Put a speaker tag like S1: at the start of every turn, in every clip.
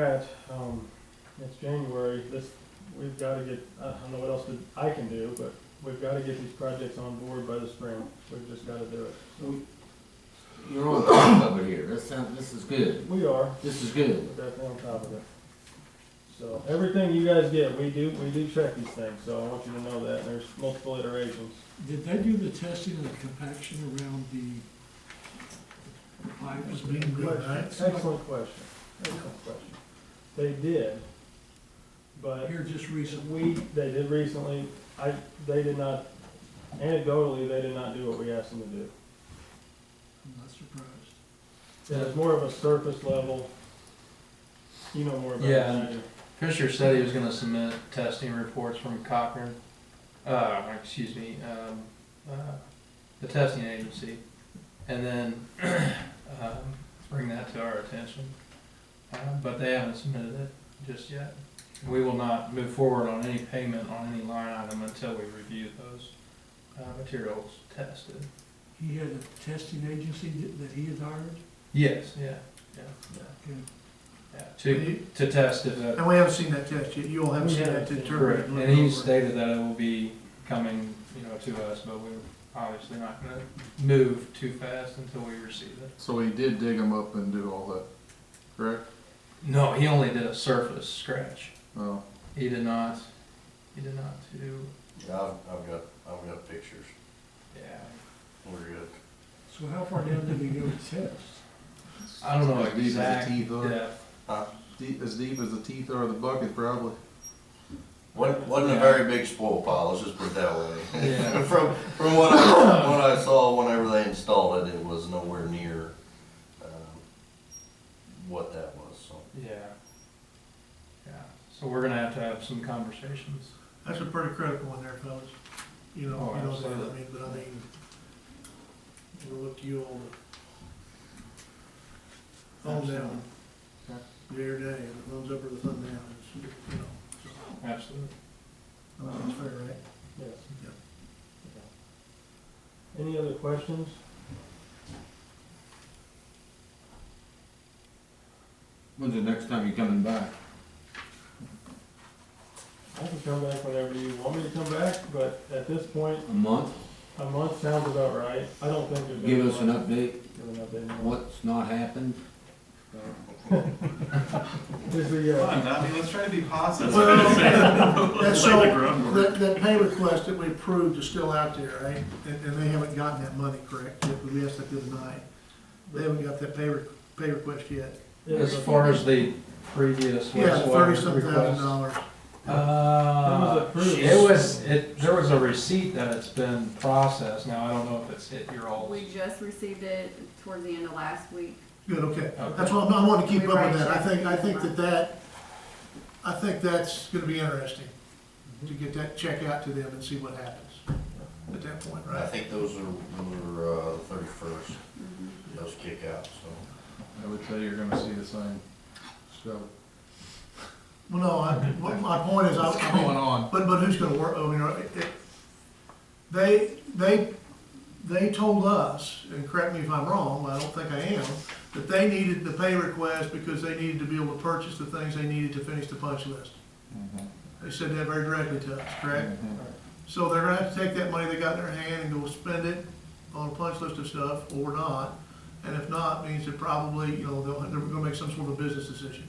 S1: Pat, um, it's January, this, we've gotta get, I don't know what else that I can do, but we've gotta get these projects on board by the spring, we've just gotta do it.
S2: You're on top of it here, this sounds, this is good,
S1: We are,
S2: this is good.
S1: we're definitely on top of it. So, everything you guys get, we do, we do check these things, so I want you to know that, there's multiple iterations.
S3: Did they do the testing of the compaction around the the pipes?
S1: Excellent question, excellent question. They did, but
S3: Here just
S1: we,
S3: recently,
S1: they did recently, I, they did not, anecdotally, they did not do what we asked them to do.
S3: I'm not surprised.
S1: Yeah, it's more of a surface level. You know more about it than I do.
S4: Fisher said he was gonna submit testing reports from Cochran, uh, excuse me, um, uh, the testing agency, and then, um, bring that to our attention. Uh, but they haven't submitted it just yet. We will not move forward on any payment on any line item until we review those, uh, materials tested.
S3: He had a testing agency that- that he had hired?
S4: Yes, yeah,
S3: Okay.
S4: yeah, to, to test if uh, that
S5: And we haven't seen that test yet, you all haven't
S1: We
S5: seen
S1: haven't
S5: that to
S1: seen it.
S5: determine.
S4: Correct, and he stated that it will be coming, you know, to us, but we're obviously not gonna move too fast until we receive it.
S6: So he did dig them up and do all that, correct?
S4: No, he only did a surface scratch.
S6: No.
S4: He did not, he did not do,
S2: Yeah, I've, I've got, I've got pictures,
S4: yeah,
S2: we're good.
S3: So how far down did he go to test?
S4: I don't know
S6: As deep as the
S4: exact
S6: teeth are.
S4: depth.
S6: Deep, as deep as the teeth are of the bucket, probably.
S2: Wasn't, wasn't a very big spoil pile, let's just put it that way.
S4: Yeah.
S2: From, from what I, what I saw whenever they installed it, it was nowhere near, um, what that was, so.
S4: Yeah. Yeah, so we're gonna have to have some conversations.
S5: That's a pretty critical one there, fellas. You know,
S4: Oh,
S5: you know, that, I
S4: absolutely.
S5: mean, but I mean, we'll look to you all. On that one.
S4: Absolutely.
S5: Day or day, and it runs up or the thumb down, it's, you know, so, I
S4: Absolutely.
S5: think that's fair, right?
S1: Yes.
S5: Yep.
S1: Okay. Any other questions?
S6: When's the next time you coming back?
S1: I can come back whenever you want me to come back, but at this point,
S6: A month?
S1: a month sounds about right. I don't think there's.
S2: Give
S1: been a
S2: us an
S1: month-
S2: update,
S1: been enough in there.
S2: what's not happened?
S1: Is the, uh,
S7: I mean, let's try to be positive.
S5: Well, that's so,
S7: Lay the groundwork.
S5: that, that pay request that we approved is still out there, right? And, and they haven't gotten that money, correct? Yeah, We asked that the other night. They haven't got that pay, re- pay request yet.
S4: As far as the previous
S5: Yeah,
S4: wastewater
S5: thirty-some thousand
S4: request.
S5: dollars.
S1: It was
S4: Uh,
S1: approved.
S4: it was, it, there was a receipt that it's been processed, now I don't know if it's hit your all.
S8: We just received it towards the end of last week.
S5: Good, okay.
S4: Okay.
S5: That's why I'm- I want to keep
S8: We
S5: up
S8: write
S5: with that. I
S8: checks
S5: think, I
S8: every
S5: think that
S8: month.
S5: that, I think that's gonna be interesting, to get that check out to them and see what happens at that point,
S2: I
S5: right?
S2: think those are, those are, uh, thirty-first, those kick out, so.
S6: I would say you're gonna see the same stuff.
S5: Well, no, I, what my point is, I, I mean,
S6: on?
S5: but, but who's gonna work, I mean, are- it- they, they, they told us, and correct me if I'm wrong, but I don't think I am, that they needed the pay request because they needed to be able to purchase the things they needed to finish the punch list. They said that very directly to us, correct? So they're gonna have to take that money they got in their hand and go spend it on a punch list of stuff, or not. And if not, means they're probably, you know, they'll, they're gonna make some sort of business decision.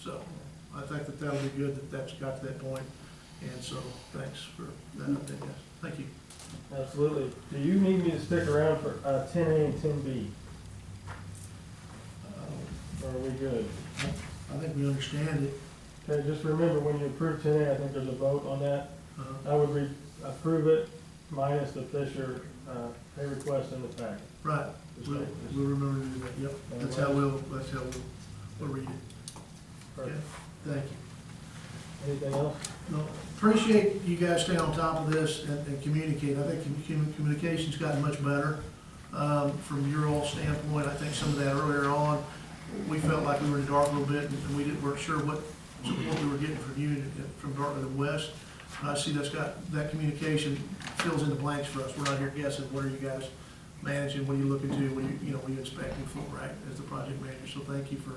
S5: So, I think that that'll be good that that's got to that point, and so, thanks for that update, guys. Thank you.
S1: absolutely. Do you need me to stick around for, uh, ten A and ten B? Or are we good?
S5: Uh, I think we understand it,
S1: Okay, just remember, when you approve ten A, I think there's a vote on that.
S5: uh,
S1: I would re- approve it minus the Fisher, uh, pay request in the packet.
S5: right,
S1: Just
S5: we'll,
S1: like this.
S5: we'll remember to do that, yep, that's how we'll, that's how we'll, we'll read it, okay?
S1: Perfect.
S5: Thank you.
S1: Anything else?
S5: Well, Appreciate you guys staying on top of this and, and communicate. I think commu- commu- communication's gotten much better, um, from your all standpoint. I think some of that earlier on, we felt like we were in the dark a little bit and we didn't, weren't sure what, what we were getting from you and and from Dartmouth and West. And I see that's got, that communication fills in the blanks for us. We're not here guessing, what are you guys managing, what are you looking to, what are you, you know, what are you expecting for, right, as the project manager? So thank you for